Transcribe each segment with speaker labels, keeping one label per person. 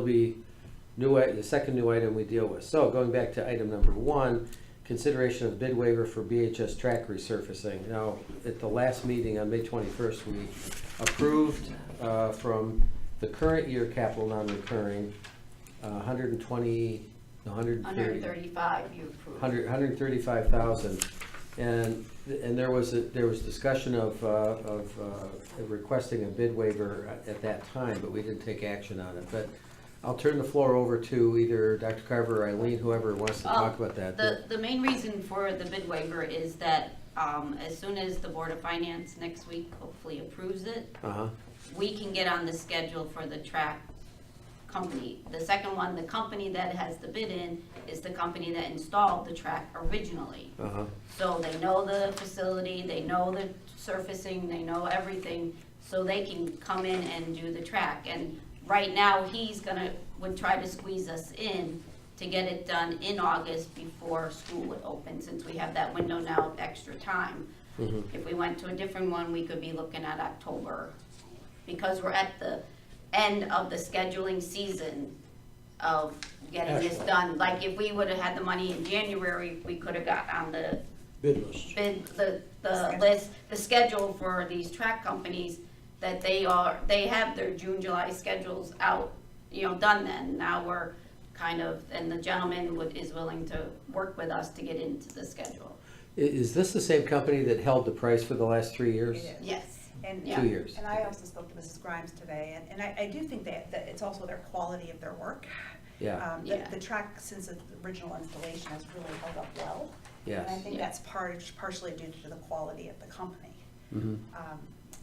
Speaker 1: will be new, i- the second new item we deal with. So going back to item number one, consideration of bid waiver for BHS track resurfacing. Now, at the last meeting on May twenty-first, we approved uh, from the current year capital non-recurring, uh, hundred and twenty, hundred and thirty.
Speaker 2: Under thirty-five, you approved.
Speaker 1: Hundred, hundred thirty-five thousand, and, and there was, a- there was discussion of, uh, of uh, requesting a bid waiver at that time, but we didn't take action on it, but I'll turn the floor over to either Dr. Carver or Eileen, whoever wants to talk
Speaker 2: Um,
Speaker 3: Oh,
Speaker 1: about that.
Speaker 2: The, the main reason for the bid waiver is that, um, as soon as the Board of Finance next week hopefully approves it,
Speaker 1: Uh-huh,
Speaker 2: we can get on the schedule for the track company. The second one, the company that has the bid in, is the company that installed the track originally.
Speaker 1: uh-huh,
Speaker 2: So they know the facility, they know the surfacing, they know everything, so they can come in and do the track. And right now, he's gonna, would try to squeeze us in to get it done in August before school would open, since we have that window now of extra time.
Speaker 1: mm-hmm.
Speaker 2: If we went to a different one, we could be looking at October, because we're at the end of the scheduling season of getting this
Speaker 4: Excellent.
Speaker 2: done. Like, if we would've had the money in January, we could've got on the
Speaker 4: bid list.
Speaker 2: been the, the list, the schedule for these track companies, that they are, they have their June, July schedules out, you know, done then. Now we're kind of, and the gentleman would, is willing to work with us to get into the schedule.
Speaker 1: I- is this the same company that held the price for the last three years?
Speaker 3: It is.
Speaker 2: Yes.
Speaker 3: And, uh,
Speaker 2: Yeah.
Speaker 1: Two years,
Speaker 3: and I also spoke to Mrs. Grimes today, and, and I, I do think that, that it's also their quality of their work.
Speaker 1: yeah,
Speaker 3: Um, the,
Speaker 2: Yeah.
Speaker 3: the track, since the original installation, has really held up well. And I
Speaker 1: yes,
Speaker 3: think
Speaker 2: Yeah.
Speaker 3: that's part, partially due to the quality of the company.
Speaker 1: mhm,
Speaker 3: Um,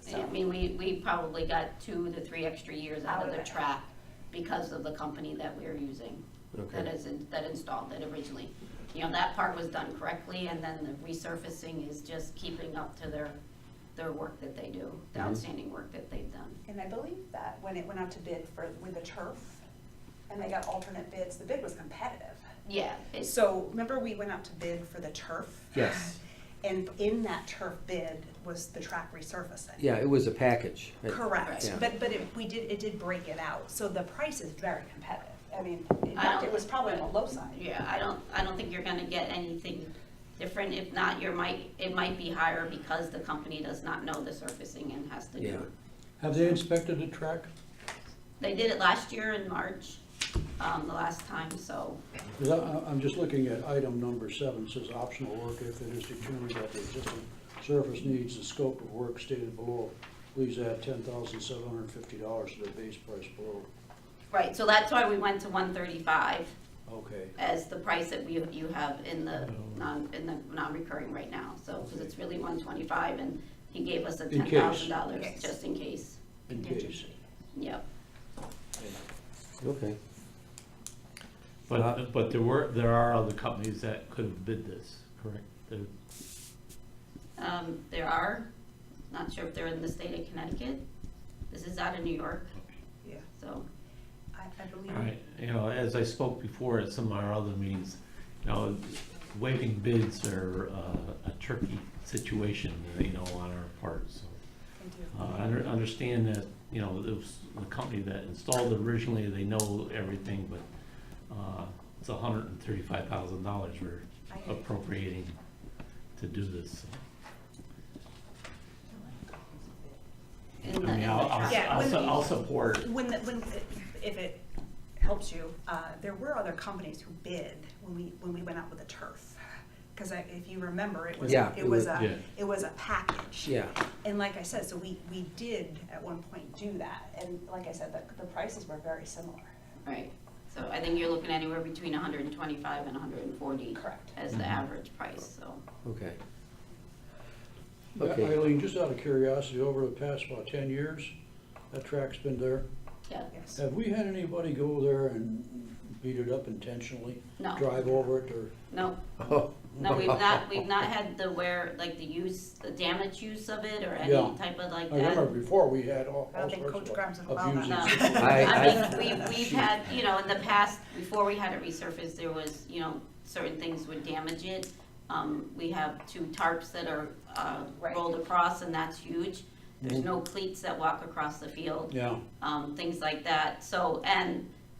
Speaker 2: I
Speaker 3: So,
Speaker 2: mean, we, we probably got two to three extra years out of
Speaker 3: Out of
Speaker 2: the
Speaker 3: it.
Speaker 2: track because of the company that we're using, that
Speaker 1: okay,
Speaker 2: is, in- that installed it originally. You know, that part was done correctly, and then the resurfacing is just keeping up to their, their work that they do, the
Speaker 1: Mhm.
Speaker 2: outstanding work that they've done.
Speaker 3: and I believe that when it went out to bid for, with the turf, and they got alternate bids, the bid was competitive.
Speaker 2: Yeah, it's,
Speaker 3: So remember we went out to bid for the turf?
Speaker 1: yes,
Speaker 3: And in that turf bid was the track resurfacing.
Speaker 1: yeah, it was a package. It-
Speaker 3: Correct,
Speaker 1: Yeah.
Speaker 3: but, but it, we did, it did break it out, so the price is very competitive. I mean, in
Speaker 2: I
Speaker 3: fact,
Speaker 2: don't-
Speaker 3: it was probably on the low side.
Speaker 2: yeah, I don't, I don't think you're gonna get anything different. If not, you might, it might be higher because the company does not know the surfacing and has to do
Speaker 1: Yeah.
Speaker 2: it.
Speaker 4: Have they inspected the track?
Speaker 2: They did it last year in March, um, the last time, so,
Speaker 4: 'Cause I- I- I'm just looking at item number seven, says optional work if it is determined that the existing surface needs the scope of work stated below. Please add ten thousand seven hundred and fifty dollars to the base price below.
Speaker 2: right, so that's why we went to one thirty-five
Speaker 4: Okay,
Speaker 2: as the price that we, you have in the non, in the non-recurring right now, so, cause it's really one twenty-five and he gave us a
Speaker 4: In
Speaker 2: ten
Speaker 4: case.
Speaker 2: thousand dollars
Speaker 3: Yes.
Speaker 2: just in case,
Speaker 4: in case.
Speaker 2: yep.
Speaker 1: Okay, Uh,
Speaker 5: But, but there were, there are other companies that could have bid this, correct? There-
Speaker 2: Um, there are, not sure if they're in the state of Connecticut. This is out of New York,
Speaker 3: Yeah,
Speaker 2: so,
Speaker 3: I, I believe.
Speaker 5: All right, you know, as I spoke before at some of our other meetings, you know, waiving bids are uh, a tricky situation, you know, on our part, so.
Speaker 3: they do.
Speaker 5: Uh, I under- understand that, you know, it was the company that installed it originally, they know everything, but uh, it's hundred and thirty-five thousand dollars we're
Speaker 3: I-
Speaker 5: appropriating to do this. so.
Speaker 2: in the, in
Speaker 5: I
Speaker 2: the
Speaker 5: mean, I'll,
Speaker 2: track.
Speaker 5: I'll,
Speaker 3: Yeah,
Speaker 5: I'll
Speaker 3: when
Speaker 5: su-
Speaker 3: we-
Speaker 5: I'll support.
Speaker 3: When, the- when, if it helps you, uh, there were other companies who bid when we, when we went out with the turf. Cause I, if you remember, it was,
Speaker 1: Yeah,
Speaker 3: it was
Speaker 5: Yeah.
Speaker 3: a, it was a package.
Speaker 1: yeah,
Speaker 3: And like I said, so we, we did at one point do that, and like I said, the, the prices were very similar.
Speaker 2: Right, so I think you're looking anywhere between hundred and twenty-five and hundred and forty.
Speaker 3: Correct.
Speaker 2: As the
Speaker 5: Mhm.
Speaker 2: average price, so.
Speaker 1: okay. Okay.
Speaker 4: Eileen, just out of curiosity, over the past about ten years, that track's been there.
Speaker 2: Yeah,
Speaker 3: Yes.
Speaker 4: Have we had anybody go there and beat it up intentionally?
Speaker 2: No.
Speaker 4: Drive over it or?
Speaker 2: no,
Speaker 1: Oh,
Speaker 2: no, we've not, we've not had the where, like the use, the damage use of it or any
Speaker 4: Yeah.
Speaker 2: type of like
Speaker 4: I
Speaker 2: that.
Speaker 4: remember before, we had all
Speaker 3: I don't
Speaker 4: all
Speaker 3: think
Speaker 4: sorts
Speaker 3: Coach Grimes
Speaker 4: of
Speaker 3: would allow
Speaker 4: abusing.
Speaker 2: No,
Speaker 1: I-
Speaker 2: Um, I
Speaker 1: I-
Speaker 2: mean, we've, we've had, you know, in the past, before we had it resurfaced, there was, you know, certain things would damage it. Um, we have two tarps that are, uh,
Speaker 3: Right.
Speaker 2: rolled across and that's huge. There's no cleats that walk across the field,
Speaker 4: Yeah,
Speaker 2: um, things like that, so, and